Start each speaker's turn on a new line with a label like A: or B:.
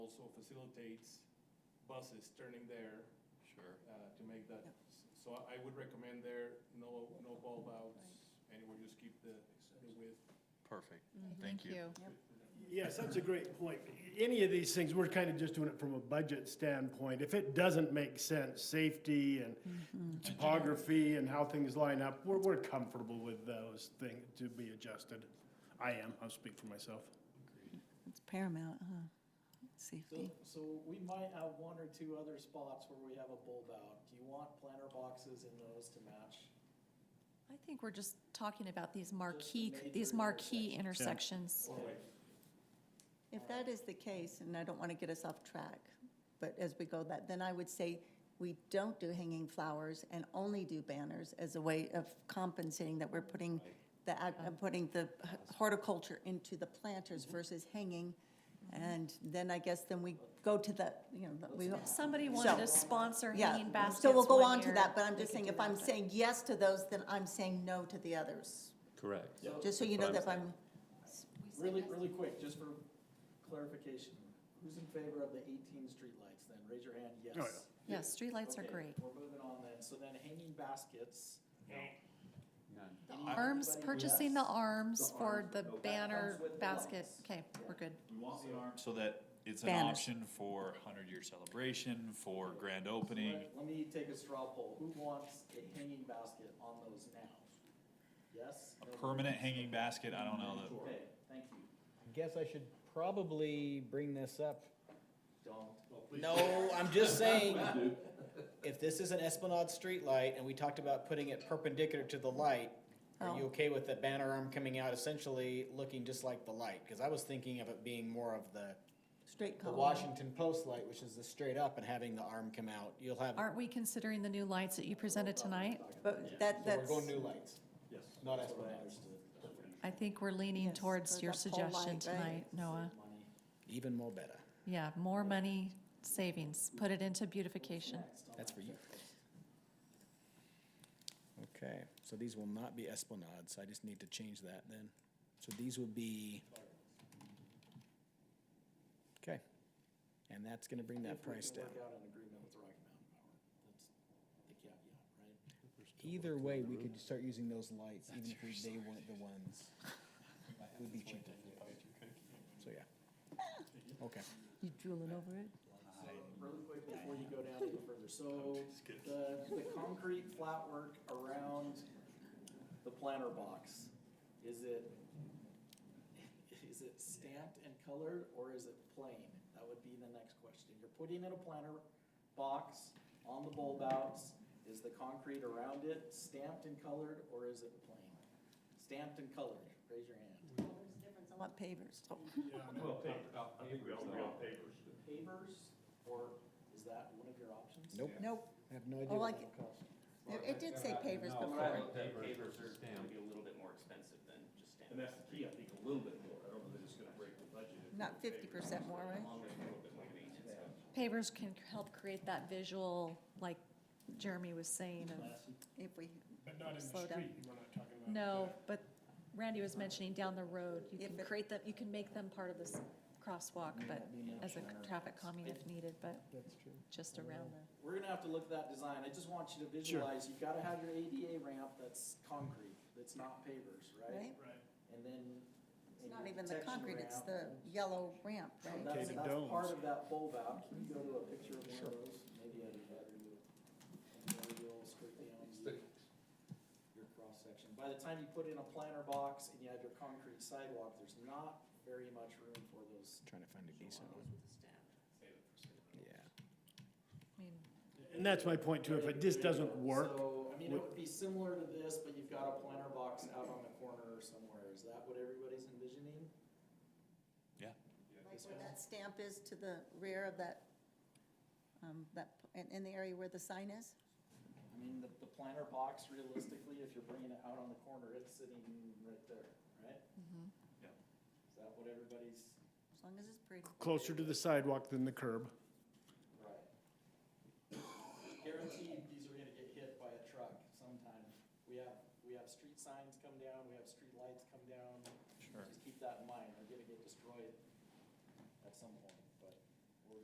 A: also facilitates buses turning there,
B: Sure.
A: uh, to make that.
C: Yep.
A: So I would recommend there, no, no bulb outs anywhere, just keep the, the width.
B: Perfect. Mm-hmm. Thank you.
D: Yes, that's a great point. Any of these things, we're kind of just doing it from a budget standpoint. If it doesn't make sense, safety and topography and how things line up, we're, we're comfortable with those things to be adjusted. I am, I'll speak for myself.
C: It's paramount, huh? Safety.
E: So, so we might have one or two other spots where we have a bulb out. Do you want planter boxes in those to match?
F: I think we're just talking about these marquee,
E: major
F: these marquee intersections.
C: If that is the case, and I don't want to get us off track, but as we go that, then I would say we don't do hanging flowers and only do banners as a way of compensating that we're putting the, ag- uh, putting the horticulture into the planters versus hanging. And then I guess then we go to the, you know, we.
F: If somebody wanted to
C: So-
F: sponsor
C: Yeah,
F: hanging baskets
C: So we'll go
F: one
C: on to
F: year,
C: that, but I'm
F: we
C: just
F: could
C: saying,
F: do
C: if
F: that.
C: I'm saying yes to those, then I'm saying no to the others.
B: Correct.
C: Just so you know that if I'm,
E: Really, really quick, just for clarification, who's in favor of the eighteen streetlights then? Raise your hand,
B: Oh,
E: yes.
F: Yes, streetlights are
E: Okay,
F: great.
E: We're moving on then. So then hanging baskets.
B: None.
F: Arms,
E: Anybody
F: purchasing the
E: yes?
F: arms
E: The
F: for
E: arms.
F: the
E: That
F: banner
E: comes with the
F: basket.
E: lights.
F: Okay, we're good.
B: We want the arm so that it's an
C: Banners.
B: option for hundred-year celebration, for grand opening.
E: Let let me take a straw poll. Who wants a hanging basket on those now? Yes?
B: A
E: No?
B: permanent hanging basket, I don't know
E: Okay, thank you.
G: I guess I should probably bring this up.
E: Don't.
G: No, I'm just saying, if this is an Esplanade streetlight and we talked about putting it perpendicular to the light, are you
C: Oh.
G: okay with the banner arm coming out essentially looking just like the light? Cause I was thinking of it being more of the,
C: straight
G: the
C: color.
G: Washington Post light, which is the straight up and having the arm come out. You'll have, so
F: Aren't we considering the new lights that you presented tonight?
C: But that,
G: we're
C: that's,
G: going new lights,
A: Yes.
G: not Esplanade.
F: I think we're leaning
C: Yes,
F: towards
C: there's
F: your
C: that pole light,
F: suggestion
C: right?
F: tonight, Noah.
E: Money.
G: Even more better.
F: Yeah, more money savings, put it into beautification.
E: Next on
G: That's
E: that
G: for you.
E: checklist.
G: Okay, so these will not be Esplanades, I just need to change that then. So these will be. Okay, and that's gonna bring that
E: If we
G: price
E: can
G: down.
E: Work out an agreement with Rocky Mountain Power. That's the caveat, right?
G: Either way, we could start using those lights, even if we- they weren't the ones. It would be cheaper. So, yeah. Okay.
C: you drooling over it?
E: So really quick before you go down any further, so the, the concrete flat work around the planter box, is it, is it stamped and colored or is it plain? That would be the next question. You're putting in a planter box on the bulb outs, is the concrete around it stamped and colored or is it plain? Stamped and colored, raise your hand.
C: I want pavers.
E: Pavers, or is that one of your options?
G: Nope,
C: Nope,
G: I have no idea
C: Oh,
G: what
C: like-
G: it'll cost.
C: it it did say pavers
H: When I
C: before.
H: looked at papers, are gonna be a little bit more expensive than just
I: And
H: stamps.
I: that's the key, I think, a little bit more. I don't know that it's gonna break the budget. if
C: Not
I: we pay
C: fifty percent more, right?
H: Along with a little bit more maintenance.
F: Pavers can help create that visual, like Jeremy was saying of
C: If we,
D: But not in the
F: Slow down.
D: street, we're not talking about.
F: No, but Randy was mentioning down the road, you can
C: If it-
F: create them, you can make them part of this crosswalk, but as a traffic calming if needed, but
G: That's true.
F: just around the.
E: We're gonna have to look at that design, I just want you to visualize, you've gotta have your ADA ramp that's concrete, that's not pavers, right?
C: right?
E: And then.
C: It's
E: and
C: not
E: your
C: even the
E: protection
C: concrete, it's
E: ramp.
C: the yellow ramp,
E: So
C: right?
E: That's,
D: Concave
E: that's
D: domes.
E: part of that bulb out, can you go to a picture of one of those, maybe at a better view? Another little straight down Your cross section, by the time you put in a planter box and you have your concrete sidewalk, there's not very much room for those.
G: Trying to find a decent one, yeah.
F: I mean,
D: And that's my point too, if it just doesn't work,
E: So, I mean, it would be similar to this, but you've got a planter box out on the corner or somewhere. Is that what everybody's envisioning?
B: that.
C: Like where that stamp is to the rear of that, um, that, in, in the area where the sign is?
E: I mean, the, the planter box realistically, if you're bringing it out on the corner, it's sitting right there, right?
B: Yeah.
E: Is that what everybody's,
C: As long as it's pretty.
D: closer to the sidewalk than the curb.
E: right? Guaranteed, these are gonna get hit by a truck sometime. We have, we have street signs come down, we have street lights come down.
B: Sure.
E: Just keep that in mind.